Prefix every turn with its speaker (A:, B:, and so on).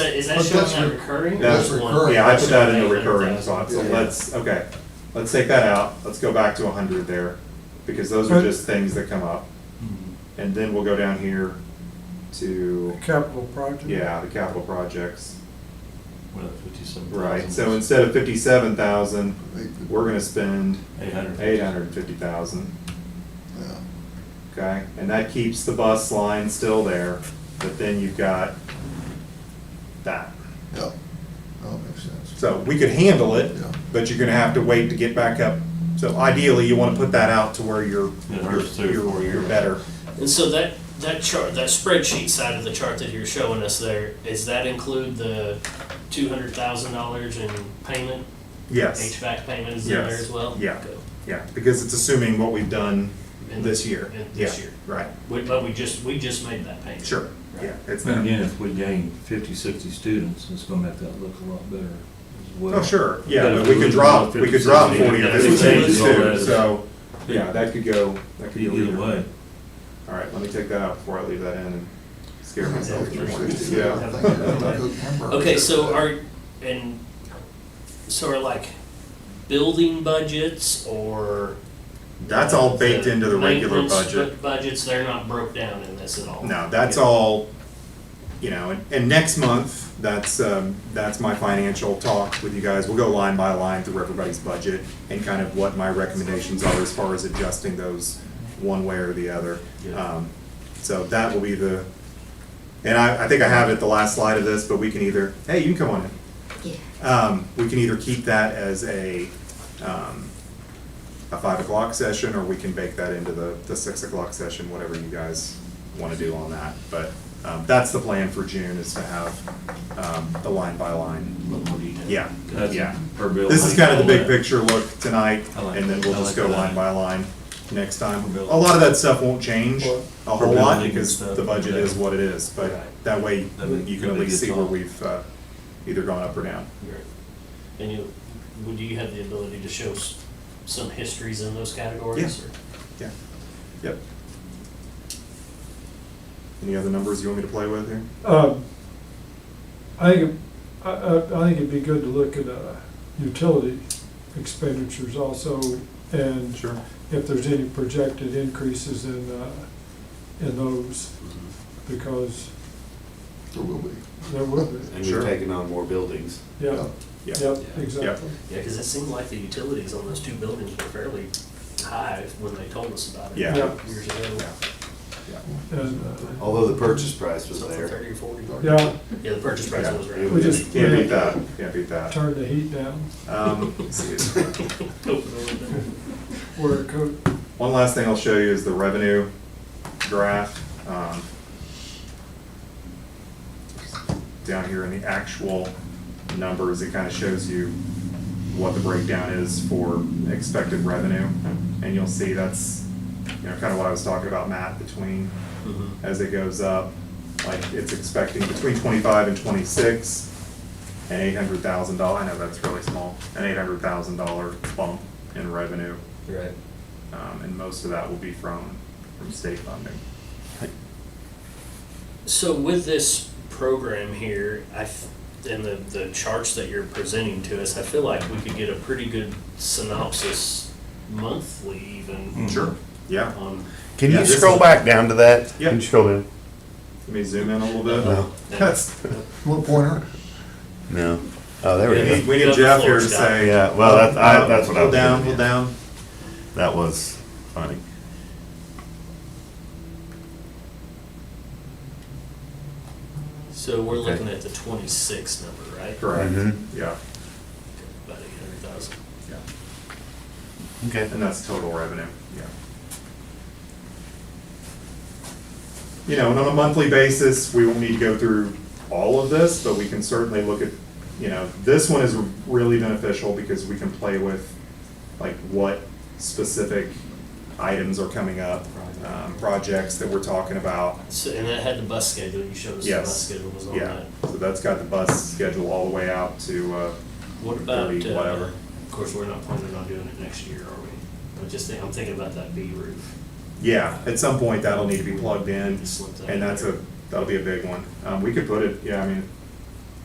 A: is that
B: But
A: showing
B: that's
A: that
B: re-
A: recurring?
B: that's
A: Or-
B: recurring.
C: Yeah, I put that in the
A: Yeah.
C: recurring slot, so
B: Yeah.
C: let's, okay, let's take that out, let's go back to hundred there, because those are
B: Right.
C: just things that come up.
B: Hmm.
C: And then we'll go down here to,
B: Capital project?
C: yeah, the capital projects,
D: Well, fifty-seven thousand.
C: right, so instead of fifty-seven thousand, we're gonna spend
D: Eight hundred.
C: eight hundred and fifty thousand,
E: Yeah.
C: okay? And that keeps the bus line still there, but then you've got that.
E: Yeah, that makes sense.
C: So we could handle it,
E: Yeah.
C: but you're gonna have to wait to get back up. So ideally, you wanna put that out to where you're,
D: It
C: you're,
D: hurts too,
C: you're
D: four
C: you're
D: years.
C: better.
A: And so that, that chart, that spreadsheet side of the chart that you're showing us there, does that include the two hundred thousand dollars in payment?
C: Yes,
A: HVAC payment is in there
C: Yes.
A: as well?
C: Yeah.
A: Okay.
C: yeah, because it's assuming what we've done
A: In-
C: this year.
A: in this
C: Yeah,
A: year.
C: Right,
A: We- But we just, we just made that payment.
C: sure, yeah, it's
D: And
C: not,
D: again, if we gain 50, 60 students, it's gonna make that look a lot better as well.
C: oh, sure, yeah,
D: But
C: but
D: if
C: we
D: we
C: could
D: lose
C: drop,
D: another
C: we could
D: 50,
C: drop
D: 60,
C: forty of
A: yeah,
C: this
A: it
C: change
A: changes all
C: too,
D: that.
C: so, yeah, that could go, that could go
D: Either
C: either.
D: way.
C: All right, let me take that out before I leave that in and scare myself.
E: Three sixty,
C: Yeah.
E: I think that's a good number.
A: Okay, so are, and, so are like building budgets or?
C: That's all baked into the regular
A: maintenance
C: budget.
A: bu- Budgets, they're not broke down in this at all?
C: No, that's
A: Yeah.
C: all, you know, and, and next month, that's, um, that's my financial talk with you guys. We'll go line by line through everybody's budget and kind of what my recommendations are as far as adjusting those one way or the other.
D: Yeah.
C: Um, so that will be the, and I, I think I have it the last slide of this, but we can either, hey, you can come on in. Um, we can either keep that as a, um, a five o'clock session, or we can bake that into the, the six o'clock session, whatever you guys wanna do on that. But, um, that's the plan for June, is to have, um, the line by
D: A
C: line.
D: little more detail.
C: Yeah,
D: That's
C: yeah.
D: per building.
C: This is kind of the big
D: all that.
C: picture look tonight,
D: I like
C: and then
D: that.
C: we'll
D: I
C: just
D: like
C: go
D: that.
C: line by line next time.
D: For
C: A lot of that stuff won't change
B: Well-
C: a whole lot,
D: building and
C: because
D: stuff,
C: the budget
D: yeah.
C: is what it is, but
A: Right.
C: that way,
D: That'd be-
C: you can at
D: that'd be
C: least
D: good
C: see where
D: talk.
C: we've, uh, either gone up or down.
A: Right. And you, would you have the ability to show s- some histories in those categories? or-
C: Yeah, yep. Any other numbers you want me to play with here?
B: Um, I think, I, I, I think it'd be good to look at, uh, utility expenditures also, and
C: Sure.
B: if there's any projected increases in, uh, in those,
C: Mm-hmm.
B: because
E: There will be.
B: there will be.
F: And
C: Sure.
F: we're taking on more buildings.
B: Yeah,
C: Yeah.
B: yep, exactly.
A: Yeah, cause it seemed like the utilities on those two buildings were fairly high when they told us about it.
C: Yeah.
B: Yeah.
A: Years ago.
C: Yeah. Yeah.
B: And, uh,
F: Although the purchase price was
A: Something
F: there.
A: thirty or forty.
B: yeah,
A: Yeah, the purchase price
C: Yeah.
A: was right.
F: It
B: We
F: was-
B: just-
C: Can't beat that, can't beat that.
B: turn the heat down
C: Um, let's see.
B: where it could,
C: One last thing I'll show you is the revenue graph. um, Down here in the actual numbers, it kind of shows you what the breakdown is for expected revenue. And you'll see that's, you know, kind of what I was talking about, Matt, between as it goes up. Like, it's expecting between twenty-five and twenty-six, an eight hundred thousand dollar, I know that's really small, an eight hundred thousand dollar bump in revenue.
A: Right.
C: Um, and most of that will be from, from state funding.
A: So with this program here, I, f- and the, the charts that you're presenting to us, I feel like we could get a pretty good synopsis monthly
F: Hmm.
A: even.
C: Mm-hmm.
A: Um,
C: Sure. Yeah,
A: On,
F: Can
C: Yeah,
F: you
C: this
F: scroll
C: is-
F: back down to that?
C: Yeah.
F: Can you scroll down?
C: let me zoom in a little bit.
F: No.
C: That's,
E: What pointer?
F: No. Oh, there
C: we
F: we
C: need,
F: go.
C: we
A: Yeah,
C: need
A: the
C: Jeff here
A: floor
C: to
A: shot.
C: say. uh,
F: Yeah, well, that's- I- that's what I
C: Pull
F: was
C: down, pull
F: thinking,
C: down.
F: That was funny.
A: so we're
F: Okay.
A: looking at the twenty-six number, right?
C: Correct,
F: Mhm.
C: yeah,
A: About eight hundred thousand.
C: yeah.
F: Okay.
C: And that's total revenue, yeah. You know, and on a monthly basis, we won't need to go through all of this, but we can certainly look at, you know, this one is really beneficial because we can play with, like, what specific items are coming up, um, projects that we're talking about.
A: So, and that had the bus schedule, you showed us the bus
C: Yes,
A: schedule was on
C: yeah,
A: that.
C: so that's got the bus schedule all the way out to, uh,
A: What about,
C: Thirty,
A: uh,
C: whatever.
A: of course, we're not planning on doing it next year, are we? I'm just, think- I'm thinking about that B roof.
C: Yeah, at some point that'll need to be plugged in,
A: Just slip that in
C: and that's
A: there.
C: a, that'll be a big one. Um, we could put it, yeah, I mean,